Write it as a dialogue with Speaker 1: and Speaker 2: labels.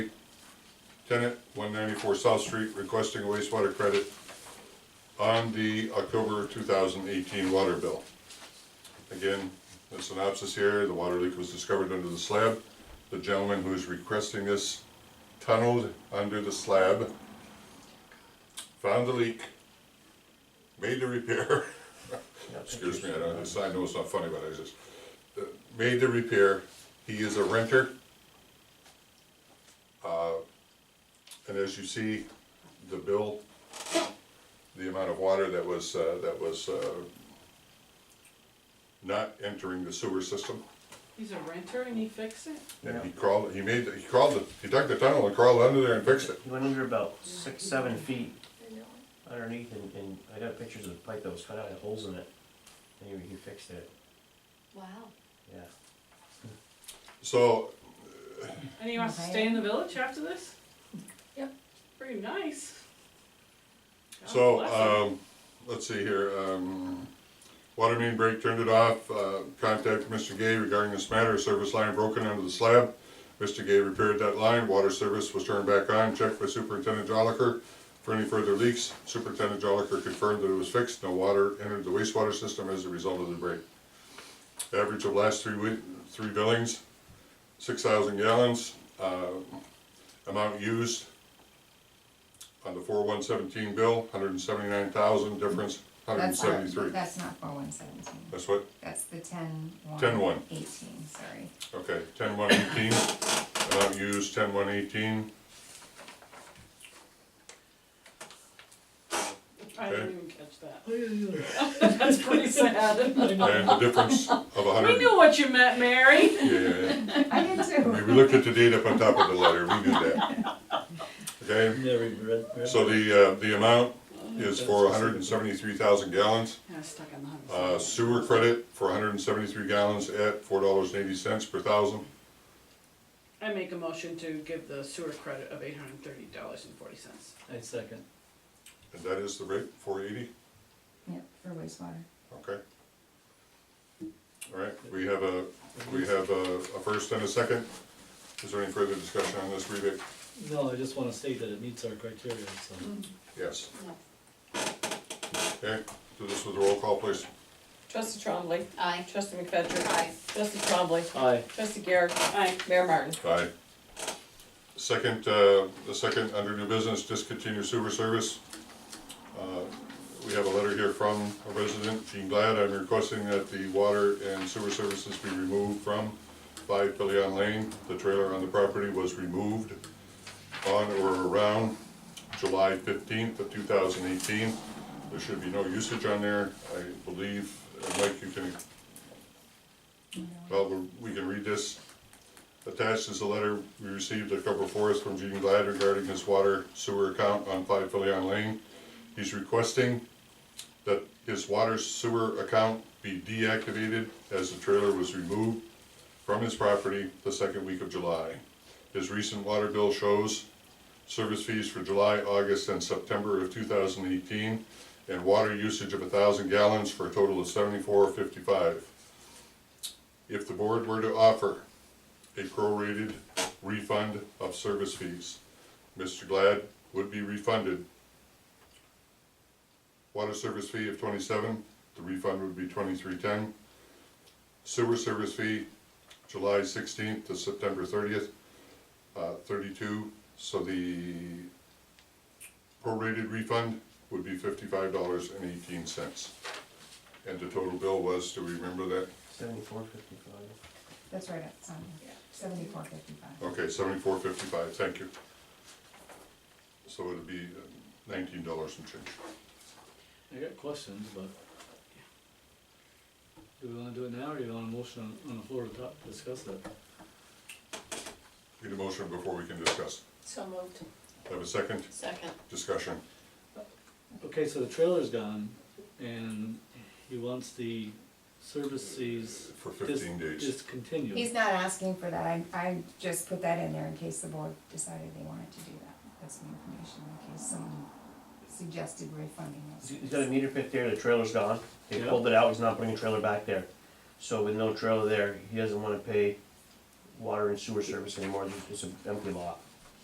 Speaker 1: tenant, one ninety-four South Street, requesting a wastewater credit on the October two thousand eighteen water bill. Again, the synopsis here, the water leak was discovered under the slab. The gentleman who is requesting this tunneled under the slab, found the leak, made the repair. Excuse me, I don't, it's- I know it's not funny, but I just, uh, made the repair. He is a renter. Uh, And as you see, the bill, the amount of water that was, uh, that was uh, not entering the sewer system.
Speaker 2: He's a renter and he fixed it?
Speaker 1: And he
Speaker 3: Yeah.
Speaker 1: crawled, he made, the- he crawled, the- he dug the tunnel and crawled under there and fixed it.
Speaker 3: He went under about six, seven feet underneath and, and I got pictures of the pipe that was cut out, had holes in it. And he, he fixed it,
Speaker 4: Wow.
Speaker 3: yeah.
Speaker 2: Oh,
Speaker 1: So
Speaker 2: And he wants to stay in the village after this?
Speaker 4: Yep.
Speaker 2: Pretty nice. God
Speaker 1: So,
Speaker 2: bless him.
Speaker 1: um, let's see here, um, water main break, turned it off, uh, contacted Mr. Gay regarding this matter, service line broken under the slab. Mr. Gay repaired that line, water service was turned back on, checked by Superintendent Joliker for any further leaks. Superintendent Joliker confirmed that it was fixed, no water entered the wastewater system as a result of the break. Average of last three week, three billings, six thousand gallons, uh, amount used, on the four one seventeen bill, hundred and seventy-nine thousand, difference, hundred and
Speaker 5: That's not-
Speaker 1: seventy-three.
Speaker 5: That's not four one seventeen,
Speaker 1: That's what,
Speaker 5: that's the ten one.
Speaker 1: 10-1.
Speaker 5: Eighteen, sorry.
Speaker 1: okay, ten one eighteen, amount used, ten one eighteen,
Speaker 2: I didn't
Speaker 1: okay.
Speaker 2: even catch that. That's pretty sad.
Speaker 1: and the difference of a
Speaker 2: We
Speaker 1: hundred.
Speaker 2: knew what you meant, Mary.
Speaker 1: Yeah, yeah, yeah.
Speaker 5: I did
Speaker 1: I mean,
Speaker 5: too.
Speaker 1: we looked at the date up on top of the letter, we knew that. Okay,
Speaker 3: Never even read,
Speaker 1: so the, uh, the amount is for hundred and seventy-three thousand gallons.
Speaker 2: I was stuck on the hundred.
Speaker 1: Uh, sewer credit for hundred and seventy-three gallons at four dollars and eighty cents per thousand.
Speaker 2: I make a motion to give the sewer credit of eight hundred and thirty dollars and forty cents.
Speaker 6: I second.
Speaker 1: And that is the rate, four eighty,
Speaker 5: Yep, for wastewater.
Speaker 1: okay? All right, we have a, we have a, a first and a second. Is there any further discussion on this rebate?
Speaker 6: No, I just wanna state that it meets our criteria, so.
Speaker 1: Yes. Okay, do this with a roll call, please.
Speaker 7: Trustee Trombley.
Speaker 4: Aye.
Speaker 7: Trustee McFetrich. Aye. Trustee Trombley.
Speaker 6: Aye.
Speaker 7: Trustee Garrett.
Speaker 2: Aye.
Speaker 7: Mayor Martin.
Speaker 1: Aye. Second, uh, the second under new business, discontinue sewer service. Uh, We have a letter here from a resident, Gene Glad, I'm requesting that the water and sewer services be removed from five Pillion Lane. The trailer on the property was removed on or around July fifteenth of two thousand eighteen. There should be no usage on there, I believe, uh, Mike, you can, well, we- we can read this. Attached is a letter we received October fourth from Gene Glad regarding his water sewer account on Five Filion Lane. He's requesting that his water sewer account be deactivated as the trailer was removed from his property the second week of July. His recent water bill shows service fees for July, August, and September of two thousand eighteen, and water usage of thousand gallons for a total of seventy-four fifty-five. If the board were to offer a prorated refund of service fees. Mr. Glad would be refunded. Water service fee of twenty-seven, the refund would be twenty-three ten. Sewer service fee, July sixteenth to September thirtieth, uh, thirty-two, so the prorated refund would be fifty-five dollars and eighteen cents. And the total bill was, do we remember that?
Speaker 3: Seventy-four fifty-five.
Speaker 5: That's right, it's on seventy-four fifty-five.
Speaker 1: Okay, seventy-four fifty-five, thank you. So it'd be uh, nineteen dollars and change.
Speaker 6: I got questions, but. Do we wanna do it now, or you want a motion on, on the floor to talk, discuss that?
Speaker 1: Need a motion before we can discuss.
Speaker 7: So moved.
Speaker 1: Have a second
Speaker 7: Second.
Speaker 1: discussion.
Speaker 6: Okay, so the trailer's gone, and he wants the service fees
Speaker 1: For
Speaker 6: dis-
Speaker 1: 15 days.
Speaker 6: discontinued.
Speaker 5: He's not asking for that, I, I just put that in there in case the board decided they wanted to do that. That's the information, in case someone suggested refunding those.
Speaker 3: He's got a meter pit there, the trailer's gone, they
Speaker 6: Yeah.
Speaker 3: pulled it out, he's not putting a trailer back there. So with no trailer there, he doesn't wanna pay water and sewer service anymore, it's an empty lot.